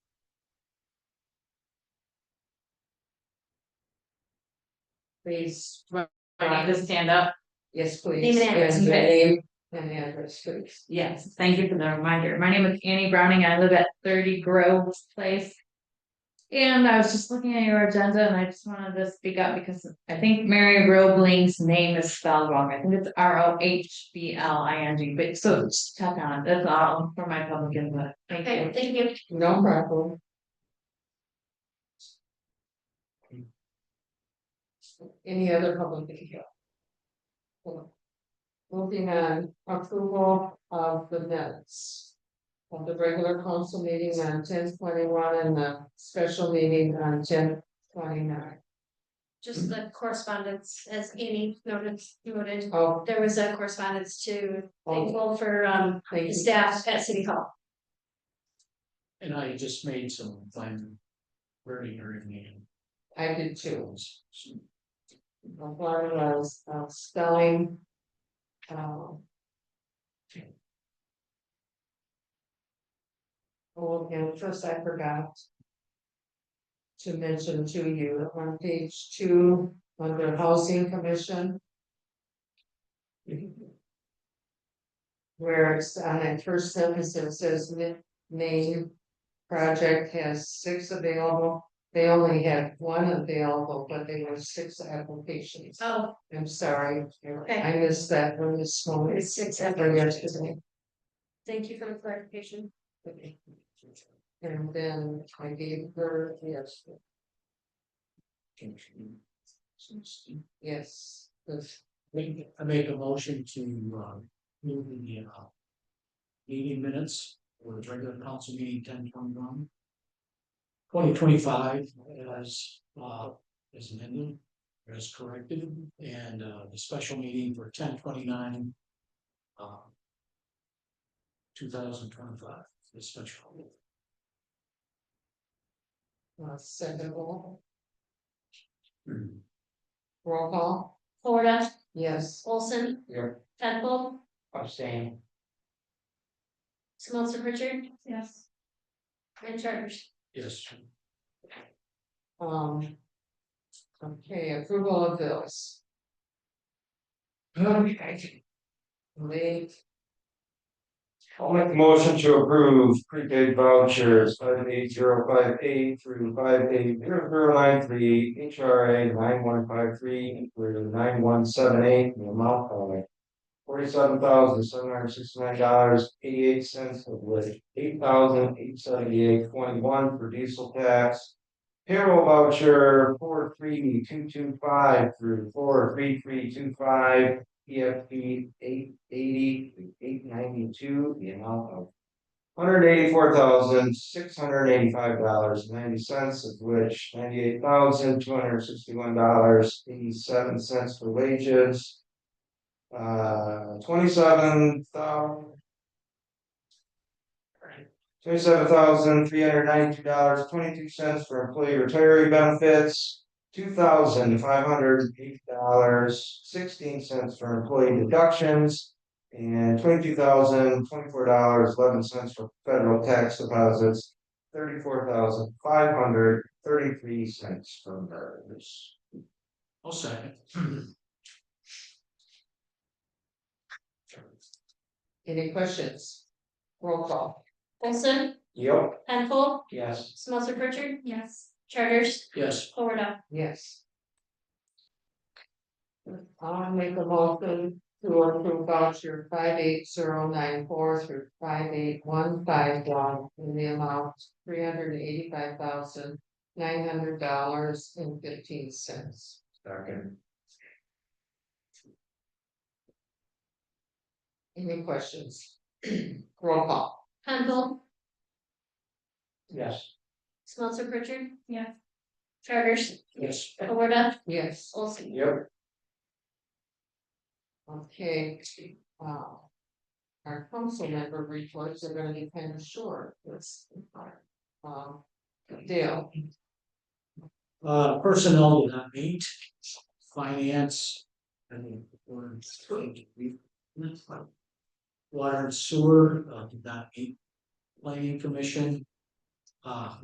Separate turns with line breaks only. Please,
I need to stand up.
yes, please.
Name and address,
And your
okay.
name and address, please.
Yes, thank you for the reminder. My name is Annie Browning. I live at thirty Grove Place. And I was just looking at your agenda and I just wanted to speak up because I think Mary Roebling's name is spelled wrong. I think it's R O H B L I N G, but so just tap on it. That's all for my public input. Thank you.
thank you. No problem. Any other public video? Moving on, approval of the minutes. Of the regular council meeting on ten twenty one and the special meeting on ten twenty nine.
just the correspondence, as Amy noted, noted,
Oh,
there was a correspondence to
oh,
thankful for um
thank
the
you.
staff at City Hall.
And I just made some fun wording or anything.
I did too. A lot of those, uh, spelling. um, Oh, and first I forgot. To mention to you on page two, under housing commission. Where it's on that first sentence, it says ma- main. Project has six available, they only had one available, but there were six applications.
Oh,
I'm sorry,
Okay.
I missed that one this morning.
It's six
I forgot his name.
thank you for the clarification.
And then I gave her, yes, yes, this-
Make, I make a motion to, uh, move the, uh. Meeting minutes for the regular council meeting ten twenty one. Twenty twenty five as, uh, as amended, as corrected, and, uh, the special meeting for ten twenty nine. Uh. Two thousand twenty five, the special.
uh, secondable, roll call,
Florida,
yes.
Olson,
You're
Penfold,
abstaining.
Smelter Richard,
Yes.
and Charters.
Yes.
Um. Okay, approval of bills,
Okay.
late,
I'll make a motion to approve prepaid vouchers five eight zero five eight through five eight zero zero nine three H R A nine one five three through nine one seven eight in the amount of forty seven thousand seven hundred sixty nine dollars eighty eight cents of which eight thousand eight seventy eight twenty one for diesel tax. Payroll voucher four three two two five through four three three two five PFP eight eighty, eight ninety-two, the amount of. Hundred eighty-four thousand, six hundred eighty-five dollars, ninety cents, of which ninety-eight thousand, two hundred sixty-one dollars, eighty-seven cents for wages. Uh, twenty-seven thousand. Twenty-seven thousand, three hundred ninety-two dollars, twenty-two cents for employee retiree benefits two thousand five hundred eight dollars sixteen cents for employee deductions. And twenty-two thousand twenty-four dollars eleven cents for federal tax deposits. Thirty-four thousand five hundred thirty-three cents for MERS.
I'll second.
any questions? Roll call,
Olson,
Yep.
Penfold,
Yes.
Smelter Richard. Yes. Charters,
Yes,
Florida,
yes. I'll make a motion to approve voucher five eight zero nine four through five eight one five one in the amount three hundred eighty-five thousand nine hundred dollars and fifteen cents.
Second.
Any questions? Roll call,
Penfold,
Yes.
Smelter Richard.
Yeah.
Charters,
yes,
Florida,
yes,
Olson.
Yep.
okay, wow. Our council member reports are gonna be kind of short, that's. Um, Dale,
uh, personnel did not meet, finance. and or- Water and sewer, uh, did not meet, planning commission. Uh,